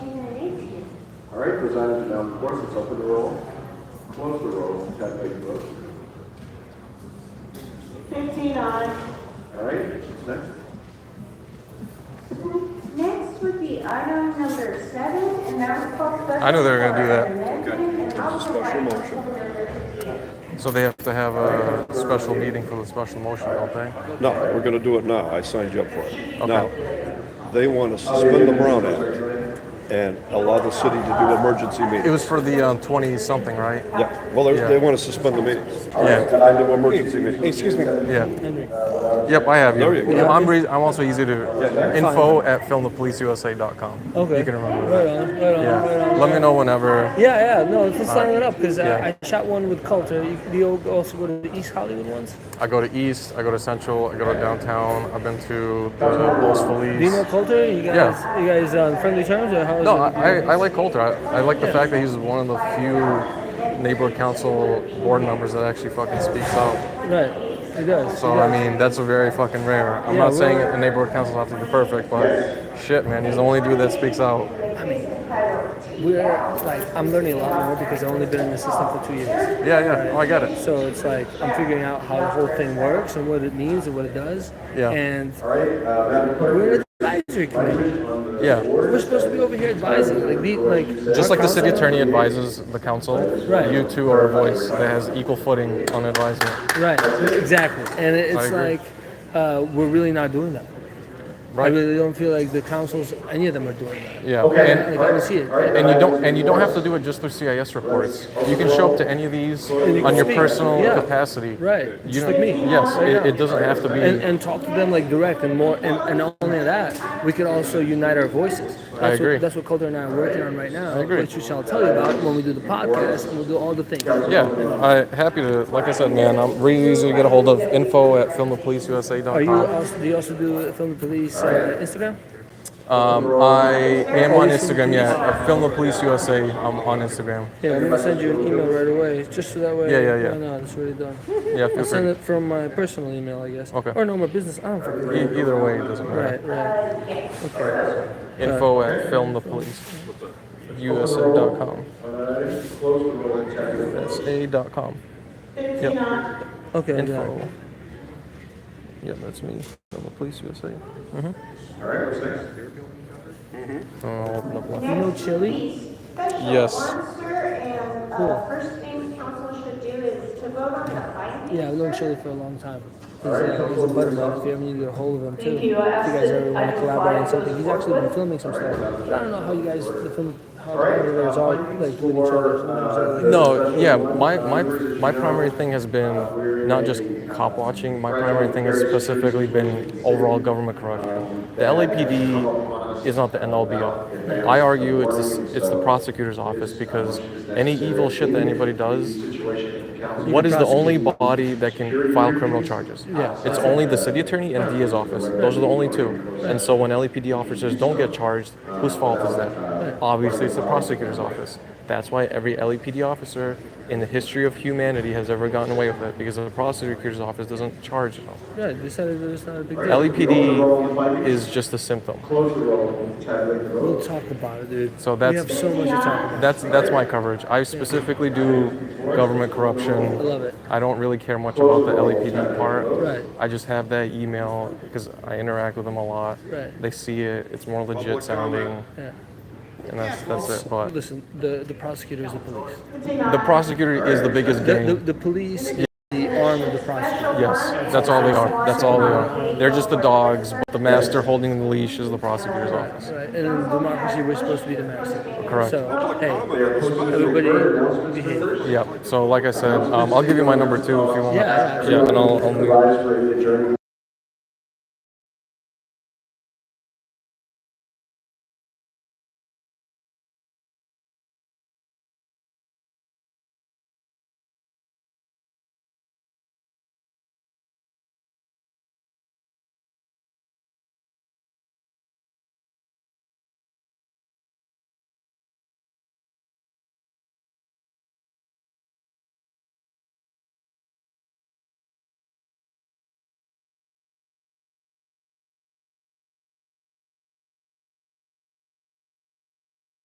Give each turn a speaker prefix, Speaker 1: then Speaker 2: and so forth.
Speaker 1: presided to announce courses, open the roll, close the roll, tabulate the vote.
Speaker 2: Fifteen on.
Speaker 1: All right, next.
Speaker 3: Next would be item number seven, and that was called special.
Speaker 4: I knew they were gonna do that.
Speaker 3: for amendment and also by special motion.
Speaker 4: So they have to have a special meeting for the special motion, don't they?
Speaker 5: No, we're gonna do it now. I signed you up for it. Now, they want to suspend the Brown Act and allow the city to do emergency
Speaker 4: It
Speaker 5: meetings.
Speaker 4: was for the um, 20 something, right?
Speaker 5: Yeah, well, they're- they want to suspend the meetings.
Speaker 4: Yeah,
Speaker 5: And do emergency meetings.
Speaker 6: Excuse me.
Speaker 4: yeah. Yep, I have you.
Speaker 5: There you go.
Speaker 4: I'm, re- I'm also easy to info at filmthepoliceusa.com.
Speaker 6: Okay.
Speaker 4: You can remember
Speaker 6: Right
Speaker 4: that.
Speaker 6: on, right on, right
Speaker 4: Yeah.
Speaker 6: on.
Speaker 4: Let me know whenever.
Speaker 6: Yeah, yeah, no, let's just sign it up because
Speaker 4: yeah.
Speaker 6: I, I shot one with Coulter. You- Do you also go to the East Hollywood ones?
Speaker 4: I go to East, I go to Central, I go to downtown. I've been to the Los
Speaker 6: Do you know
Speaker 4: Feliz.
Speaker 6: Coulter? You guys,
Speaker 4: Yeah.
Speaker 6: you guys on friendly terms or how is
Speaker 4: No,
Speaker 6: it?
Speaker 4: I, I like Coulter. I, I like the fact that he's one of the few neighborhood council board members that actually fucking speaks out.
Speaker 6: right, he does.
Speaker 4: So
Speaker 6: he
Speaker 4: I
Speaker 6: does.
Speaker 4: mean, that's a very fucking rare. I'm
Speaker 6: Yeah,
Speaker 4: not saying
Speaker 6: well-
Speaker 4: a neighborhood council's have to be perfect, but shit, man, he's the only dude that speaks out.
Speaker 6: we're like, I'm learning a lot more because I've only been in the system for two years.
Speaker 4: Yeah, yeah. Oh, I get it.
Speaker 6: So it's like I'm figuring out how the whole thing works and what it means and what it does.
Speaker 4: Yeah.
Speaker 6: And
Speaker 1: All right, uh, Madam Clerk,
Speaker 6: we're an advisory committee.
Speaker 4: Yeah.
Speaker 6: We're supposed to be over here advising, like, the, like
Speaker 4: Just
Speaker 6: our
Speaker 4: like the city
Speaker 6: council-
Speaker 4: attorney advises the council,
Speaker 6: Right.
Speaker 4: you two are a voice that has equal footing on advisement.
Speaker 6: Right, exactly. And it-
Speaker 4: I
Speaker 6: it's
Speaker 4: agree.
Speaker 6: like, uh, we're really not doing that. I
Speaker 4: Right.
Speaker 6: really don't feel like the councils, any of them are doing that.
Speaker 4: Yeah.
Speaker 1: Okay.
Speaker 4: And,
Speaker 6: Like, I don't see it.
Speaker 4: and you don't and you don't have to do it just through CIS reports. You can show up to any of these on your
Speaker 6: speak.
Speaker 4: personal
Speaker 6: Yeah.
Speaker 4: capacity.
Speaker 6: Right.
Speaker 4: You
Speaker 6: Just
Speaker 4: don't-
Speaker 6: like me.
Speaker 4: Yes.
Speaker 6: Right
Speaker 4: It,
Speaker 6: now.
Speaker 4: it doesn't have to be.
Speaker 6: And, and talk to them like direct and more, and, and not only that, we could also unite our voices. That's
Speaker 4: agree.
Speaker 6: What, that's what Coulter and I are working on right now.
Speaker 4: agree.
Speaker 6: Which we shall tell you about when we do the podcast and we'll do all the things.
Speaker 4: yeah, I happy to. Like I said, man, I'm really easy to get a hold of. Info at filmthepoliceusa.com.
Speaker 6: Are you also, do you also do Film the Police uh, Instagram?
Speaker 4: Um, I am on Instagram. Yeah, I film the police USA. I'm on Instagram.
Speaker 6: Yeah, I'm gonna send you an email right away, just so that way.
Speaker 4: Yeah, yeah, yeah.
Speaker 6: No, no, it's already done.
Speaker 4: Yeah, feel
Speaker 6: I'll send
Speaker 4: free.
Speaker 6: it from my personal email, I guess.
Speaker 4: Okay.
Speaker 6: Or no, my business. I don't fucking know.
Speaker 4: E- either way, it doesn't matter.
Speaker 6: Right, right. Okay.
Speaker 4: Info at film the police USA.com.
Speaker 1: close the roll and tabulate the vote.
Speaker 4: USA.com.
Speaker 2: Fifteen on.
Speaker 6: Okay. got it.
Speaker 4: Info. Yeah, that's me. Film the police USA.
Speaker 1: All right, what's next?
Speaker 4: Oh, I'll open up
Speaker 6: You
Speaker 4: one.
Speaker 6: know Chili?
Speaker 3: Special
Speaker 4: Yes.
Speaker 3: officer, and, uh, first thing council should do is to vote on the findings.
Speaker 6: Yeah, I've known Chili for a long time. He's, uh, he's a buddy of mine. If you ever need to get a hold of him, too.
Speaker 2: Thank you.
Speaker 6: If you
Speaker 2: I asked
Speaker 6: guys
Speaker 2: it.
Speaker 6: ever want
Speaker 2: I
Speaker 6: to
Speaker 2: just
Speaker 6: collaborate on
Speaker 2: thought it
Speaker 6: something, he's
Speaker 2: was-
Speaker 6: actually been filming some stuff. I don't know how you guys, the film, how the editors are, like, with each other. sometimes, uh, like-
Speaker 4: No, yeah, my, my my primary thing has been not just cop watching. My primary thing has specifically been overall government corruption. The LAPD is not the end all be all. I argue it's the, s- it's the prosecutor's office because any evil shit that anybody does, what is the only body that can file criminal charges? Yeah, it's only the city attorney and DA's office. Those are the only two. And so when LAPD officers don't get charged, whose fault is that? Obviously, it's the prosecutor's office. That's why every LAPD officer in the history of humanity has ever gotten away with it because the prosecutor's office doesn't charge them.
Speaker 6: Yeah, they said it was not a big deal.
Speaker 4: LAPD E is just a symptom.
Speaker 1: Close the roll and tabulate the vote.
Speaker 6: We'll talk about it, dude.
Speaker 4: So
Speaker 6: We
Speaker 4: that's-
Speaker 6: have so much to talk about.
Speaker 4: That's that's my coverage. I specifically do government corruption. I
Speaker 6: love it.
Speaker 4: I don't really care much about the LAPD part.
Speaker 6: Right.
Speaker 4: I just have that email because I interact with them a lot.
Speaker 6: Right.
Speaker 4: They see it. It's more legit sounding,
Speaker 6: Yeah.
Speaker 4: and that's that's it. But
Speaker 6: Listen, the, the prosecutor is the police.
Speaker 4: the prosecutor is the biggest
Speaker 6: The, the,
Speaker 4: game.
Speaker 6: the police is the arm of the prosecutor.
Speaker 4: Yes, that's all they are. That's all they are. They're just the dogs. But the master holding the leash is the prosecutor's office.
Speaker 6: Right, and in democracy, we're supposed to be the master.
Speaker 4: Correct.
Speaker 6: So, hey, everybody behave.
Speaker 4: Yep. So like I said, um, I'll give you my number too if you want.
Speaker 6: Yeah, yeah,
Speaker 4: Yeah. And I'll, I'll
Speaker 1: Advisory adjourned.